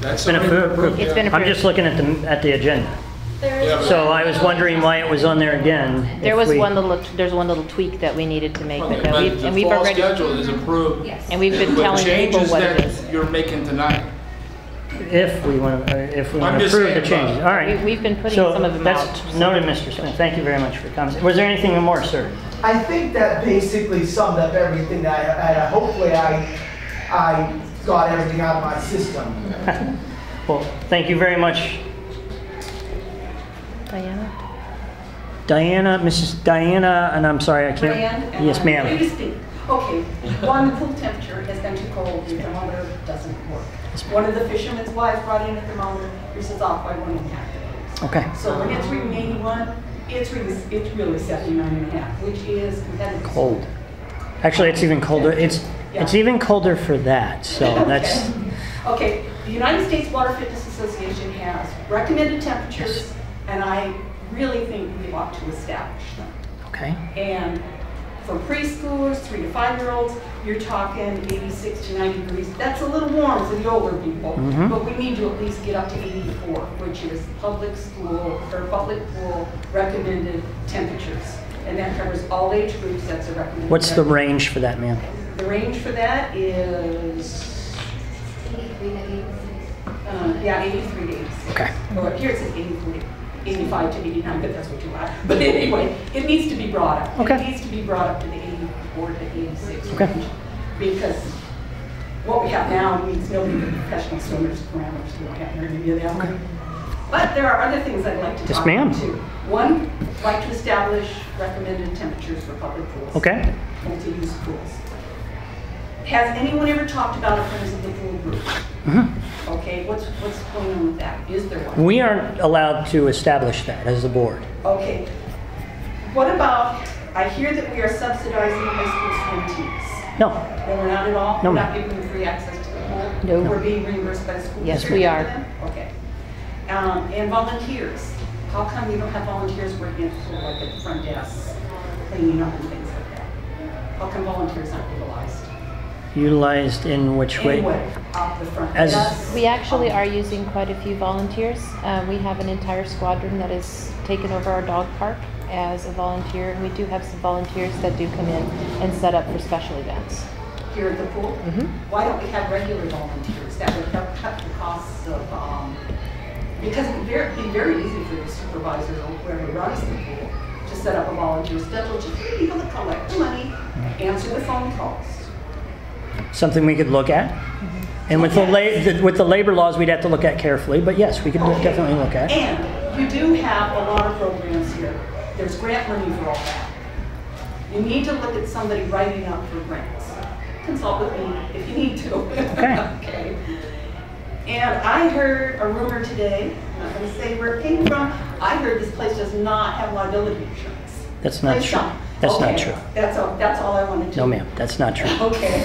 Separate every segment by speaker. Speaker 1: That's
Speaker 2: It's been
Speaker 1: already
Speaker 2: approved.
Speaker 3: It's been
Speaker 2: I'm
Speaker 3: approved.
Speaker 2: just looking at the, at the agenda.
Speaker 4: There is
Speaker 1: Yeah.
Speaker 2: So I was wondering why it was on there again.
Speaker 3: There
Speaker 2: if
Speaker 3: was
Speaker 2: we-
Speaker 3: one little, there's one little tweak that we needed to make, but no,
Speaker 1: But
Speaker 3: we've-
Speaker 1: the
Speaker 3: and we've
Speaker 1: fall
Speaker 3: already,
Speaker 1: schedule is approved.
Speaker 4: Yes.
Speaker 3: and we've been
Speaker 1: With
Speaker 3: telling people
Speaker 1: changes
Speaker 3: what it
Speaker 1: that
Speaker 3: is.
Speaker 1: You're making tonight.
Speaker 2: If we want, to, if we
Speaker 1: I'm
Speaker 2: want to
Speaker 1: just
Speaker 2: approve the
Speaker 1: saying, Bob.
Speaker 2: changes, all right.
Speaker 3: We- We've been putting
Speaker 2: So
Speaker 3: some of them
Speaker 2: that's
Speaker 3: out.
Speaker 2: Noted, Mr. Smith, thank you very much for coming. Was there anything more, sir?
Speaker 5: I think that basically summed up everything that I, and I- hopefully I, I got everything out of my system.
Speaker 2: Well, thank you very much,
Speaker 3: Diana?
Speaker 2: Diana, Mrs. Diana, and I'm sorry, I can't.
Speaker 4: Diane?
Speaker 2: Yes,
Speaker 4: Will you
Speaker 2: ma'am.
Speaker 4: speak? Okay, one, the pool temperature has been too cold, the thermometer doesn't work. One of the fishermen's wives brought in a thermometer, this is off by one and a half degrees.
Speaker 2: Okay,
Speaker 4: So when it's reading 81, it's really, it's really 79 and a half, which is competitive.
Speaker 2: cold. Actually, it's even colder, it's, it's
Speaker 4: Yeah.
Speaker 2: even colder for that, so that's,
Speaker 4: Okay, the United States Water Fitness Association has recommended temperatures, and I really think we ought to establish them.
Speaker 2: okay.
Speaker 4: And for preschoolers, three to five-year-olds, you're talking 86 to 90 degrees. That's a little warm for the older people,
Speaker 2: Mhm.
Speaker 4: but we need to at least get up to 84, which is public school or public pool recommended temperatures. And that covers all age groups, that's a recommended.
Speaker 2: What's the
Speaker 4: temperature.
Speaker 2: range for that, ma'am?
Speaker 4: The range for that is, uh, yeah, 83 to 86.
Speaker 2: Okay.
Speaker 4: Well, here it says 83, 85 to 89, but that's what you want. But anyway, it needs to be brought up.
Speaker 2: Okay.
Speaker 4: It needs to be brought up to the 84 to 86
Speaker 2: Okay.
Speaker 4: range. Because what we have now means nobody with professional swimmers parameters, we don't have any of that. But there are other things I'd like to
Speaker 2: Yes,
Speaker 4: talk about
Speaker 2: ma'am.
Speaker 4: too. One, I'd like to establish recommended temperatures for public pools.
Speaker 2: Okay,
Speaker 4: Multi-use pools. Has anyone ever talked about a friends of the pool group?
Speaker 3: Mm-hmm.
Speaker 4: Okay, what's, what's going on with that? Is there one?
Speaker 2: we aren't allowed to establish that as the board.
Speaker 4: Okay. What about, I hear that we are subsidizing high school swim teams.
Speaker 2: No,
Speaker 4: No, we're not at all?
Speaker 2: No,
Speaker 4: We're
Speaker 2: ma'am.
Speaker 4: not giving them free access to the
Speaker 3: No.
Speaker 4: pool? We're being reimbursed by the school
Speaker 3: Yes,
Speaker 4: district?
Speaker 3: we
Speaker 4: for
Speaker 3: are.
Speaker 4: them? Okay. Um, And volunteers. How come you don't have volunteers working at the pool, like at the front desk, cleaning up and things like that? How come volunteers aren't utilized?
Speaker 2: utilized in which way?
Speaker 4: Anyway, off the front
Speaker 2: As-
Speaker 4: desk.
Speaker 3: We actually
Speaker 4: off-
Speaker 3: are using quite a few volunteers. Uh, We have an entire squadron that has taken over our dog park as a volunteer, and we do have some volunteers that do come in and set up for special events.
Speaker 4: here at the pool? Why don't we have regular volunteers? That would help cut the costs of, um, because it'd be very- be very easy for your supervisor or whoever runs the pool to set up a volunteer schedule, just three people that collect the money, answer the phone calls.
Speaker 2: Something we could look at? And with the la, with the labor laws, we'd have to look at carefully, but yes, we could
Speaker 4: Okay.
Speaker 2: definitely look at. it.
Speaker 4: And you do have a lot of programs here. There's grant money for all that. You need to look at somebody writing up for grants. Consult with me if you need to.
Speaker 2: Okay.
Speaker 4: Okay. And I heard a rumor today, I'm not gonna say where it came from, I heard this place does not have liability insurance.
Speaker 2: That's not
Speaker 4: Please
Speaker 2: true.
Speaker 4: don't.
Speaker 2: That's not
Speaker 4: Okay.
Speaker 2: true.
Speaker 4: That's all, that's all I wanted to.
Speaker 2: No, ma'am, that's not true.
Speaker 4: Okay.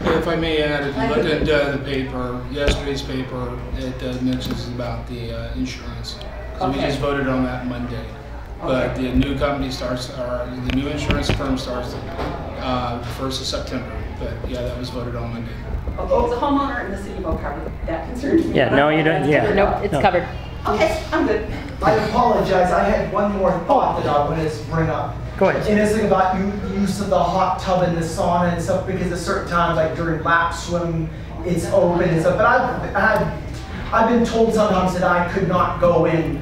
Speaker 1: If I may add, if you look at uh, the paper, yesterday's paper, it uh, mentions about the uh, insurance. 'Cause we
Speaker 4: Okay.
Speaker 1: just voted on that Monday. But
Speaker 4: Okay.
Speaker 1: the new company starts, or the new insurance firm starts uh, first of September. But yeah, that was voted on Monday.
Speaker 4: Okay, it's a homeowner in the city of Oak Harbor, that concerns me.
Speaker 2: Yeah, no, you don't- yeah.
Speaker 3: Nope, it's
Speaker 2: No.
Speaker 3: covered.
Speaker 4: Okay, I'm good.
Speaker 5: I apologize, I had one more thought that I wanted to bring up.
Speaker 2: Go ahead.
Speaker 5: And it's like about you, use of the hot tub and the sauna and stuff, because at certain times, like during lap swim, it's open and stuff, but I've, I've, I've been told sometimes that I could not go in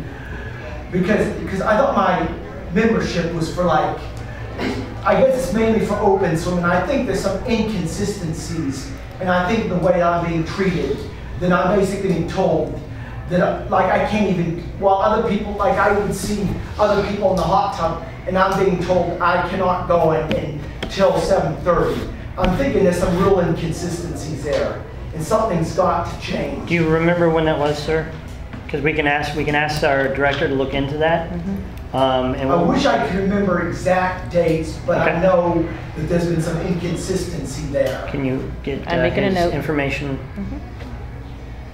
Speaker 5: because, because I thought my membership was for like, I guess it's mainly for open swimming, I think there's some inconsistencies, and I think the way I'm being treated, then I'm basically being told that, uh, like, I can't even, while other people, like, I would see other people in the hot tub, and I'm being told I cannot go in until seven thirty. I'm thinking there's some real inconsistencies there, and something's got to change.
Speaker 2: Do you remember when that was, sir? Because we can ask, we can ask our director to look into that. Um, and
Speaker 5: Mm-hmm. I
Speaker 2: we'll-
Speaker 5: wish I could remember exact dates, but
Speaker 2: Okay.
Speaker 5: I know that there's been some inconsistency there.
Speaker 2: Can you get
Speaker 3: I'm
Speaker 2: uh,
Speaker 3: making a
Speaker 2: his
Speaker 3: note. Mm-hmm.
Speaker 2: information?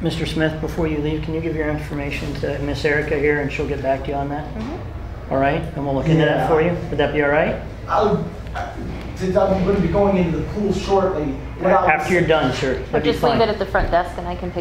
Speaker 2: Mr. Smith, before you leave, can you give your information to Miss Erica here and she'll get back to you on that?
Speaker 3: Mm-hmm.
Speaker 2: All right, and we'll look into that for you. Would that be all right?
Speaker 5: I, I- since I'm gonna be going into the pool shortly, what I was-
Speaker 2: After you're done, sure.
Speaker 3: Or
Speaker 2: That'd be
Speaker 3: just leave
Speaker 2: fine.
Speaker 3: it at the front desk and I can pick